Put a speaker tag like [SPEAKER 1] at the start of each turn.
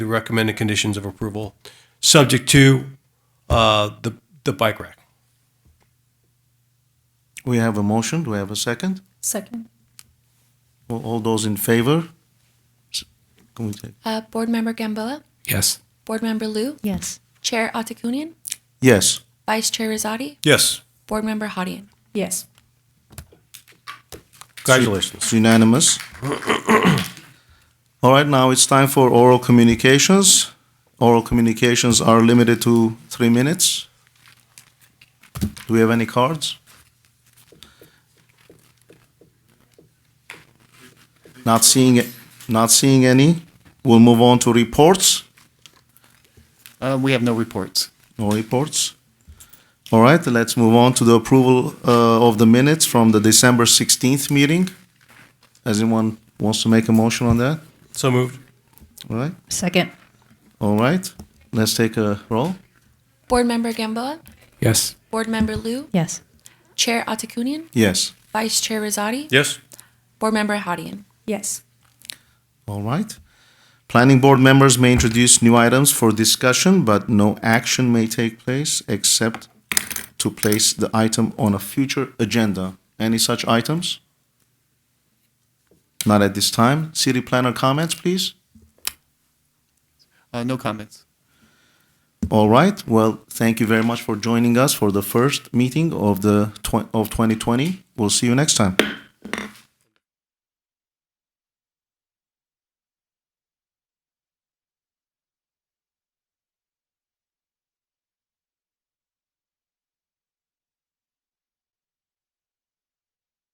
[SPEAKER 1] the recommended conditions of approval, subject to uh, the, the bike rack.
[SPEAKER 2] We have a motion, do we have a second?
[SPEAKER 3] Second.
[SPEAKER 2] All all those in favor? S- Can we take?
[SPEAKER 4] Uh, Board Member Gamboa,
[SPEAKER 5] Yes.
[SPEAKER 4] Board Member Liu,
[SPEAKER 3] Yes.
[SPEAKER 4] Chair Atakunian,
[SPEAKER 2] Yes,
[SPEAKER 4] Vice Chair Rosati,
[SPEAKER 1] Yes,
[SPEAKER 4] Board Member Hadian.
[SPEAKER 3] Yes.
[SPEAKER 1] congratulations.
[SPEAKER 2] it's unanimous. All right, now it's time for oral communications. Oral communications are limited to three minutes. Do we have any cards? Not seeing, it. not seeing any. We'll move on to reports.
[SPEAKER 5] Uh, we have no reports.
[SPEAKER 2] No reports. All right, let's move on to the approval uh, of the minutes from the December 16th meeting. As anyone wants to make a motion on that?
[SPEAKER 1] So moved.
[SPEAKER 2] All right,
[SPEAKER 3] Second.
[SPEAKER 2] all right. Let's take a roll.
[SPEAKER 4] Board Member Gamboa,
[SPEAKER 5] Yes.
[SPEAKER 4] Board Member Liu,
[SPEAKER 3] Yes.
[SPEAKER 4] Chair Atakunian,
[SPEAKER 2] Yes,
[SPEAKER 4] Vice Chair Rosati,
[SPEAKER 1] Yes,
[SPEAKER 4] Board Member Hadian.
[SPEAKER 3] Yes.
[SPEAKER 2] all right. Planning board members may introduce new items for discussion, but no action may take place except to place the item on a future agenda. Any such items? Not at this time. City planner comments, please?
[SPEAKER 5] Uh, no comments.
[SPEAKER 2] All right. Well, thank you very much for joining us for the first meeting of the tw- of 2020. We'll see you next time.